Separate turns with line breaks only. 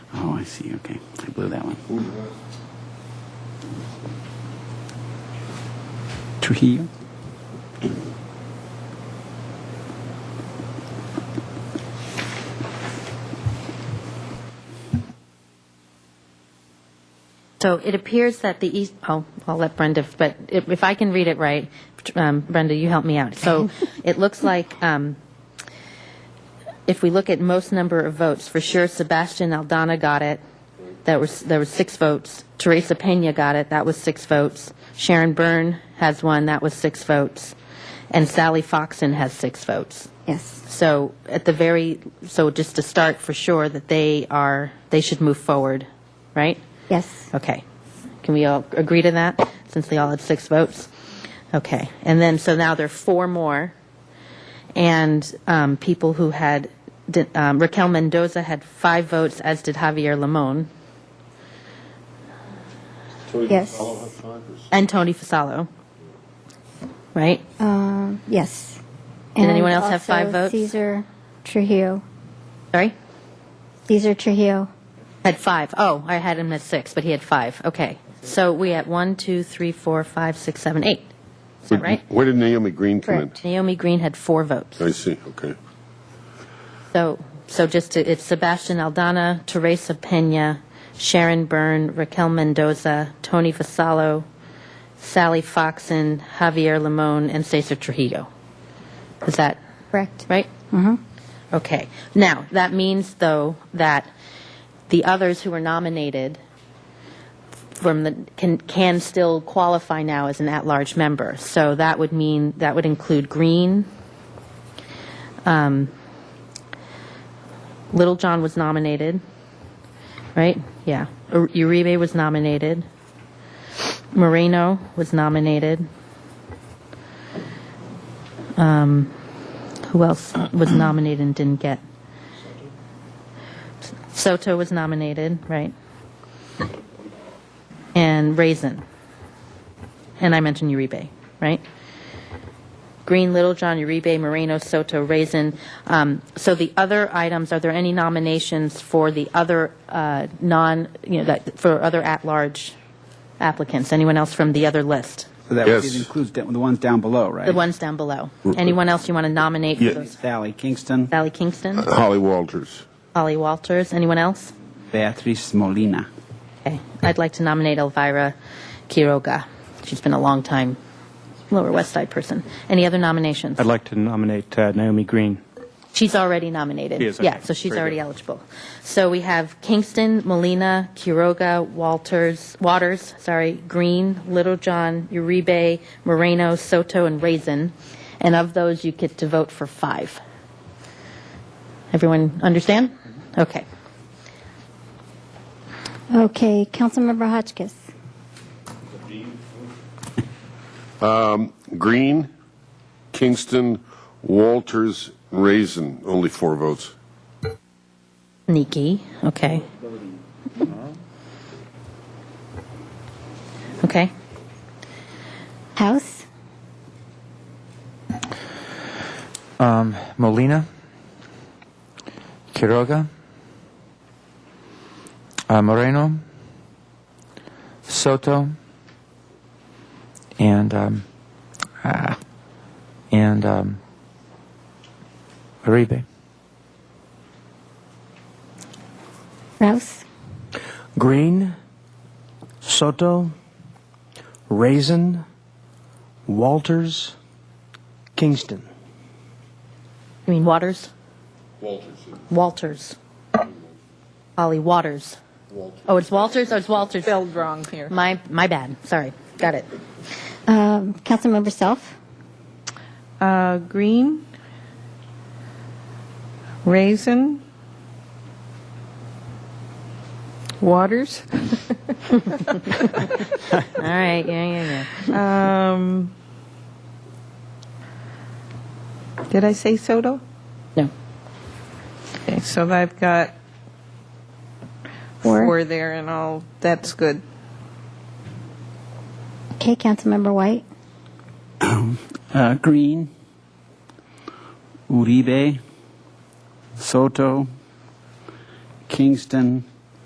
Oh, I see, okay. I blew that one. Trujillo?
So it appears that the east, oh, I'll let Brenda, but if if I can read it right, um, Brenda, you help me out. So it looks like um, if we look at most number of votes, for sure Sebastian Aldana got it. That was, there were six votes. Teresa Peña got it, that was six votes. Sharon Byrne has one, that was six votes. And Sally Foxen has six votes.
Yes.
So at the very, so just to start for sure that they are, they should move forward, right?
Yes.
Okay. Can we all agree to that, since they all had six votes? Okay. And then, so now there are four more, and um, people who had, di- um, Raquel Mendoza had five votes, as did Javier Limon,
Yes.
and Tony Fasalo, right?
Um, yes.
Did anyone else have five
also
votes?
Cesar Trujillo.
Sorry?
Cesar Trujillo.
Had five. Oh, I had him at six, but he had five. Okay. So we had one, two, three, four, five, six, seven, eight. Is that right?
Where did Naomi Green come in?
Correct.
Naomi Green had four votes.
I see, okay.
So, so just to, it's Sebastian Aldana, Teresa Pena, Sharon Byrne, Raquel Mendoza, Tony Fasalo, Sally Foxen, Javier Limon, and Cesar Trujillo. Is that
Correct.
right? Mm-hmm. Okay. Now, that means, though, that the others who were nominated from the, can, can still qualify now as an at-large member. So that would mean, that would include Green. Um, Little John was nominated, right? Yeah. Ur- Uribe was nominated. Moreno was nominated. Who else was nominated and didn't get? Soto was nominated, right? And Raisin. And I mentioned Uribe, right? Green, Littlejohn, Uribe, Moreno, Soto, Raisin. Um, So the other items, are there any nominations for the other uh, non, you know, that- for other at-large applicants? Anyone else from the other list?
So that would-
Yes.
it includes da- the ones down below, right?
The ones down below. Anyone else you want to nominate? for
Yeah.
those?
Sally Kingston,
Sally Kingston?
Holly Walters.
Holly Walters. Anyone else?
Beatriz Molina.
Okay. I'd like to nominate Elvira Quiroga. She's been a long time Lower West Side person. Any other nominations?
I'd like to nominate uh, Naomi Green.
She's already nominated.
She is,
Yeah,
okay.
so she's
Very
already
good.
eligible. So we have Kingston, Molina, Quiroga, Walters, Waters, sorry, Green, Littlejohn, Uribe, Moreno, Soto, and Raisin. And of those, you get to vote for five. Everyone understand?
Mm-hmm.
Okay.
Okay. Councilmember Hotchkiss.
Green, Kingston, Walters, Raisin, only four votes.
Nikki, okay. Okay.
House.
Molina, Quiroga, uh, Moreno, Soto, and um, ah, and um, Uribe.
Rouse.
Green, Soto, Raisin, Walters, Kingston.
You mean Waters?
Walters.
Walters. Ollie Waters. Oh, it's Walters? Oh, it's Walters. Spelled wrong here. My, my bad. Sorry. Got it.
Um, Councilmember Self.
Uh, green, raisin, waters,
All right. Yeah, yeah, yeah.
um, did I say Soto?
No.
Okay, so I've got
Four.
four there and all, that's good.
Okay. Councilmember White.
Uh, Green, Uribe, Soto, Kingston,